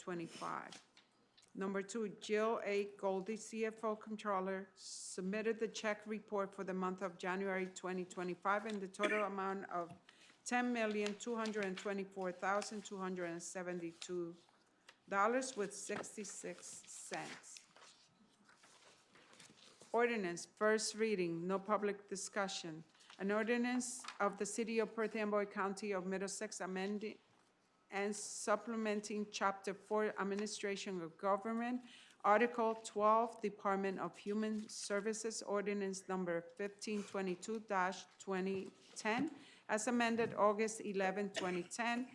2025. Number two, Jill A. Goldie, CFO Controller, submitted the check report for the month of January 2025 in the total amount of $10,224,272 with 66 cents. Ordinance, first reading, no public discussion. An ordinance of the City of Perth Amboy County of Middlesex amending and supplementing Chapter 4 Administration of Government, Article 12 Department of Human Services Ordinance Number 1522-2010, as amended August 11, 2010,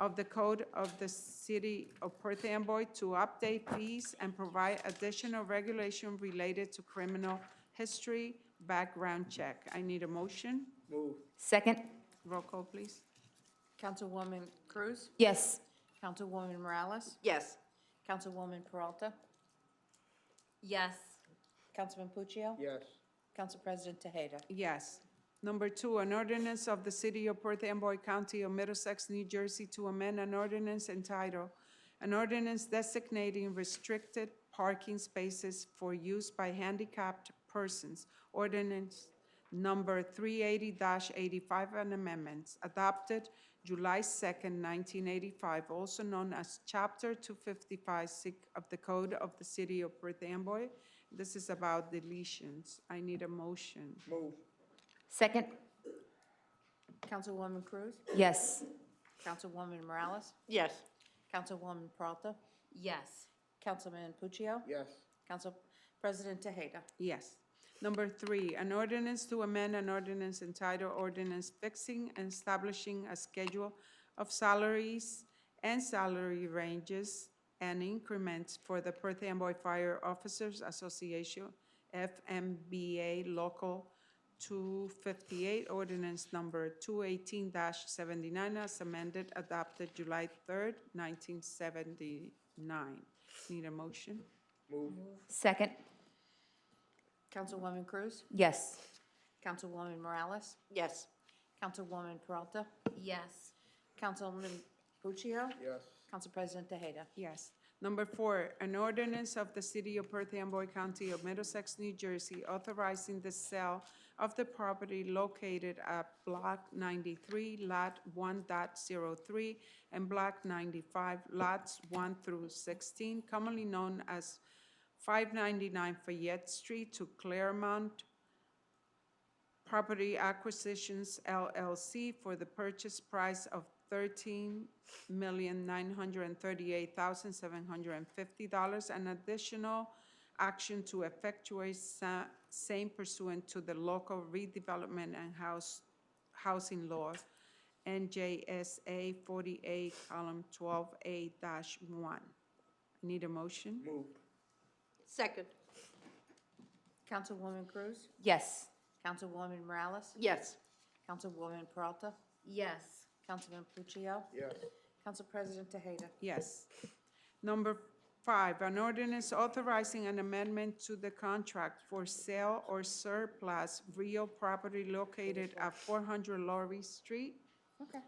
of the Code of the City of Perth Amboy to update these and provide additional regulation related to criminal history background check. I need a motion. Move. Second? Roll call, please. Councilwoman Cruz? Yes. Councilwoman Morales? Yes. Councilwoman Peralta? Yes. Councilman Puccio? Yes. Council President Tejeda? Yes. Number two, an ordinance of the City of Perth Amboy County of Middlesex, New Jersey to amend an ordinance entitled, an ordinance designating restricted parking spaces for use by handicapped persons, ordinance number three eighty eighty-five and amendments, adopted July second, nineteen eighty-five, also known as Chapter two fifty-five, sic of the Code of the City of Perth Amboy. This is about deletions. I need a motion. Move. Second? Councilwoman Cruz? Yes. Councilwoman Morales? Yes. Councilwoman Peralta? Yes. Councilman Puccio? Yes. Council President Tejeda? Yes. Number three, an ordinance to amend an ordinance entitled ordinance fixing and establishing a schedule of salaries and salary ranges and increments for the Perth Amboy Fire Officers Association, FMBA Local 258, ordinance number 218-79, as amended, adopted July 3rd, 1979. Need a motion? Move. Second? Councilwoman Cruz? Yes. Councilwoman Morales? Yes. Councilwoman Peralta? Yes. Councilman Puccio? Yes. Council President Tejeda? Yes. Number four, an ordinance of the City of Perth Amboy County of Middlesex, New Jersey, authorizing the sale of the property located at Block 93, Lot 1.03, and Block 95, Lots 1 through 16, commonly known as 599 Fayette Street to Claremont Property Acquisitions LLC for the purchase price of thirteen million nine hundred and thirty-eight thousand seven hundred and fifty dollars and additional action to effectuate sa- same pursuant to the local redevelopment and house, housing law, NJSA forty-eight, column twelve A dash one. Need a motion? Move. Second. Councilwoman Cruz? Yes. Councilwoman Morales? Yes. Councilwoman Peralta? Yes. Councilman Puccio? Yes. Council President Tejeda? Yes. Number five, an ordinance authorizing an amendment to the contract for sale or surplus real property located at 400 Laurie Street, Okay.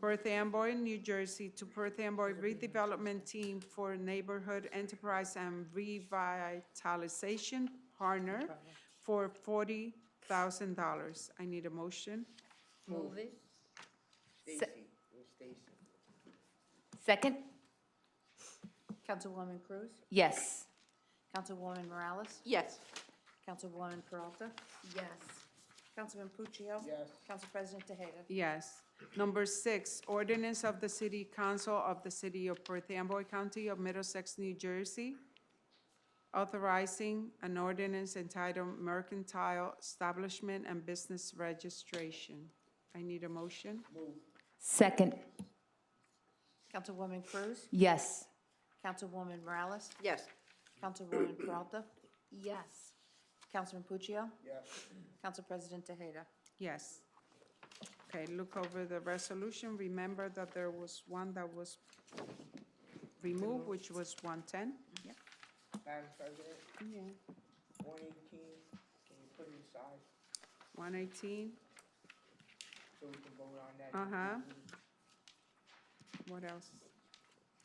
Perth Amboy, New Jersey, to Perth Amboy Redevelopment Team for Neighborhood Enterprise and Revitalization Partner for $40,000. I need a motion. Move it. Stacy. Where's Stacy? Second? Councilwoman Cruz? Yes. Councilwoman Morales? Yes. Councilwoman Peralta? Yes. Councilman Puccio? Yes. Council President Tejeda? Yes. Number six, ordinance of the City Council of the City of Perth Amboy County of Middlesex, New Jersey, authorizing an ordinance entitled Mercantile Establishment and Business Registration. I need a motion. Move. Second? Councilwoman Cruz? Yes. Councilwoman Morales? Yes. Councilwoman Peralta? Yes. Councilman Puccio? Yes. Council President Tejeda? Yes. Okay, look over the resolution. Remember that there was one that was removed, which was 110. Madam President, one eighteen, can you put it aside 118, so we can vote on that? Uh-huh. what else?